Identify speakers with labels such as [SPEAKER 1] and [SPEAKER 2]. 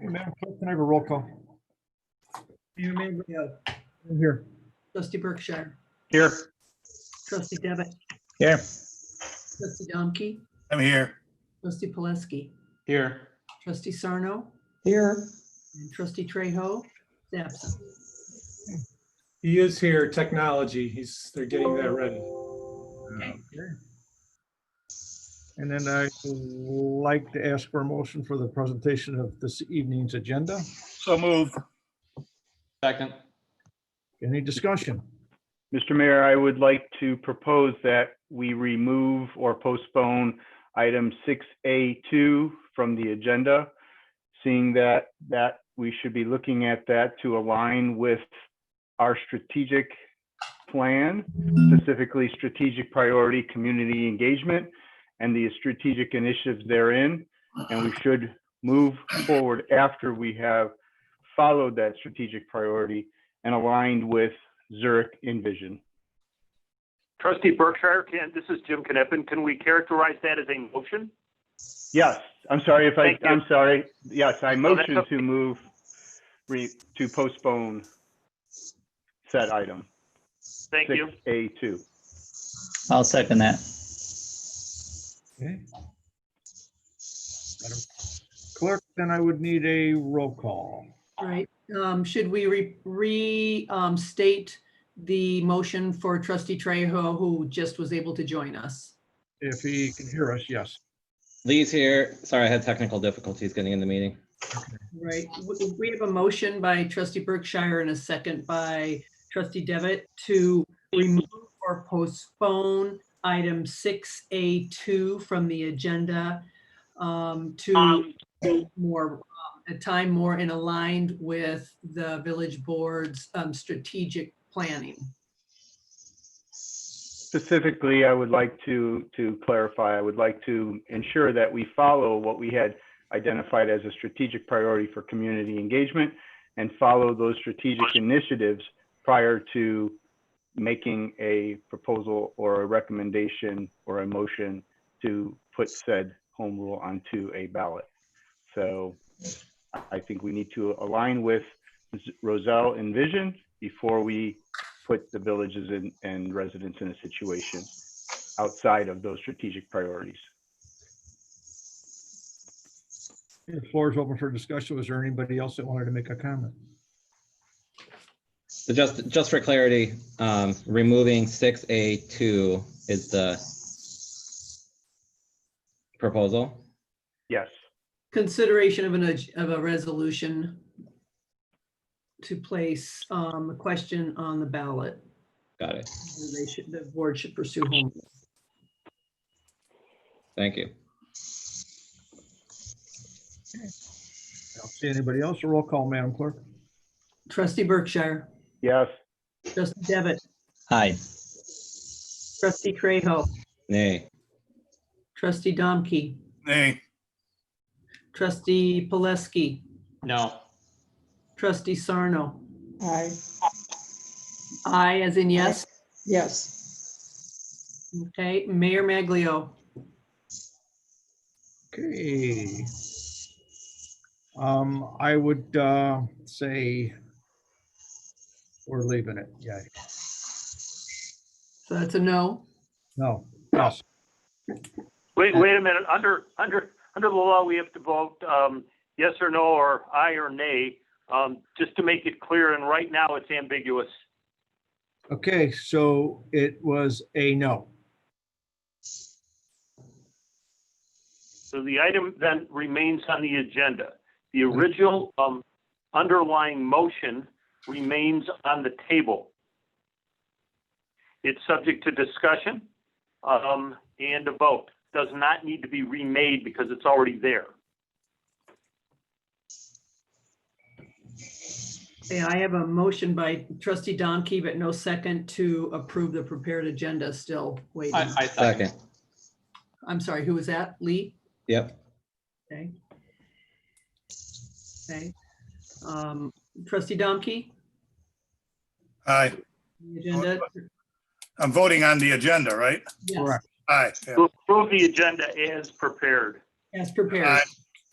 [SPEAKER 1] Madam Clerk, can I have a roll call?
[SPEAKER 2] Mayor Mambrino,
[SPEAKER 1] I'm Here.
[SPEAKER 2] trustee Berkshire,
[SPEAKER 3] Here.
[SPEAKER 2] trustee Devitt,
[SPEAKER 3] Yeah.
[SPEAKER 2] trustee Domke,
[SPEAKER 4] I'm here.
[SPEAKER 2] trustee Poleski,
[SPEAKER 3] Here.
[SPEAKER 2] trustee Sarno,
[SPEAKER 5] Here,
[SPEAKER 2] and trustee Trejo, is absent.
[SPEAKER 6] He is here, technology. He's, they're getting that ready.
[SPEAKER 1] And then I'd like to ask for a motion for the presentation of this evening's agenda.
[SPEAKER 4] So moved.
[SPEAKER 3] Second.
[SPEAKER 1] Any discussion?
[SPEAKER 7] Mr. Mayor, I would like to propose that we remove or postpone item 6A2 from the agenda, seeing that, that we should be looking at that to align with our strategic plan, specifically strategic priority, community engagement, and the strategic initiatives therein. And we should move forward after we have followed that strategic priority and aligned with Zurich Envision.
[SPEAKER 8] Trustee Berkshire, can, this is Jim Kneppen. Can we characterize that as a motion?
[SPEAKER 7] Yes, I'm sorry if I,
[SPEAKER 8] Thank you.
[SPEAKER 7] I'm sorry. Yes, I
[SPEAKER 8] No, that's
[SPEAKER 7] motion
[SPEAKER 8] okay.
[SPEAKER 7] to move, re, to postpone said item,
[SPEAKER 8] Thank
[SPEAKER 7] six
[SPEAKER 8] you.
[SPEAKER 7] A two.
[SPEAKER 3] I'll second that.
[SPEAKER 1] Okay. Madam Clerk, then I would need a roll call.
[SPEAKER 2] All Right, um, should we re, re, um, state the motion for trustee Trejo, who just was able to join us?
[SPEAKER 1] If he can hear us, yes.
[SPEAKER 9] Lee's here. Sorry, I had technical difficulties getting in the meeting.
[SPEAKER 2] Right, we- we have a motion by trustee Berkshire and a second by trustee Devitt to remove or postpone item six A two from the agenda um, to more, um, a time more in aligned with the village board's um, strategic planning.
[SPEAKER 7] Specifically, I would like to, to clarify, I would like to ensure that we follow what we had identified as a strategic priority for community engagement and follow those strategic initiatives prior to making a proposal or a recommendation or a motion to put said home rule onto a ballot. So I think we need to align with Roselle Envision before we put the villages and, and residents in a situation outside of those strategic priorities.
[SPEAKER 1] The floor is open for discussion. Was there anybody else that wanted to make a comment?
[SPEAKER 9] So just, just for clarity, um, removing six A two is the proposal.
[SPEAKER 7] Yes,
[SPEAKER 2] Consideration of an, ag- of a resolution to place um, a question on the ballot.
[SPEAKER 9] Got it.
[SPEAKER 2] whether They should, the board should pursue home rule.
[SPEAKER 9] Thank you.
[SPEAKER 1] I don't see anybody else. A roll call, Madam Clerk.
[SPEAKER 2] Trustee Berkshire,
[SPEAKER 7] yes,
[SPEAKER 2] trustee Devitt,
[SPEAKER 3] Hi.
[SPEAKER 2] trustee Trejo,
[SPEAKER 9] Nay.
[SPEAKER 2] trustee Domke,
[SPEAKER 4] Nay.
[SPEAKER 2] trustee Poleski,
[SPEAKER 3] No.
[SPEAKER 2] trustee Sarno.
[SPEAKER 5] I,
[SPEAKER 2] I as in yes.
[SPEAKER 5] yes,
[SPEAKER 2] Okay, Mayor Maglio.
[SPEAKER 1] Okay. Um, I would uh, say we're leaving it. Yeah,
[SPEAKER 2] So that's a no.
[SPEAKER 1] no, yes,
[SPEAKER 8] Wait, wait a minute. Under, under, under the law, we have to vote, um, yes or no, or aye or nay, um, just to make it clear. And right now it's ambiguous.
[SPEAKER 1] okay, so it was a no.
[SPEAKER 8] So the item then remains on the agenda. The original, um, underlying motion remains on the table. It's subject to discussion, um, and a vote. Does not need to be remade because it's already there.
[SPEAKER 2] Okay, I have a motion by trustee Domke, but no second to approve the prepared agenda still waiting.
[SPEAKER 3] I, I second.
[SPEAKER 9] Second.
[SPEAKER 2] I'm sorry, who was that? Lee?
[SPEAKER 9] Yep.
[SPEAKER 2] Okay. Okay. Um, Trustee Domke?
[SPEAKER 4] Aye.
[SPEAKER 2] the agenda?
[SPEAKER 4] I'm voting on the agenda, right?
[SPEAKER 2] Yes,
[SPEAKER 1] Correct.
[SPEAKER 4] Aye. yeah.
[SPEAKER 8] To approve the agenda as prepared.
[SPEAKER 2] As prepared.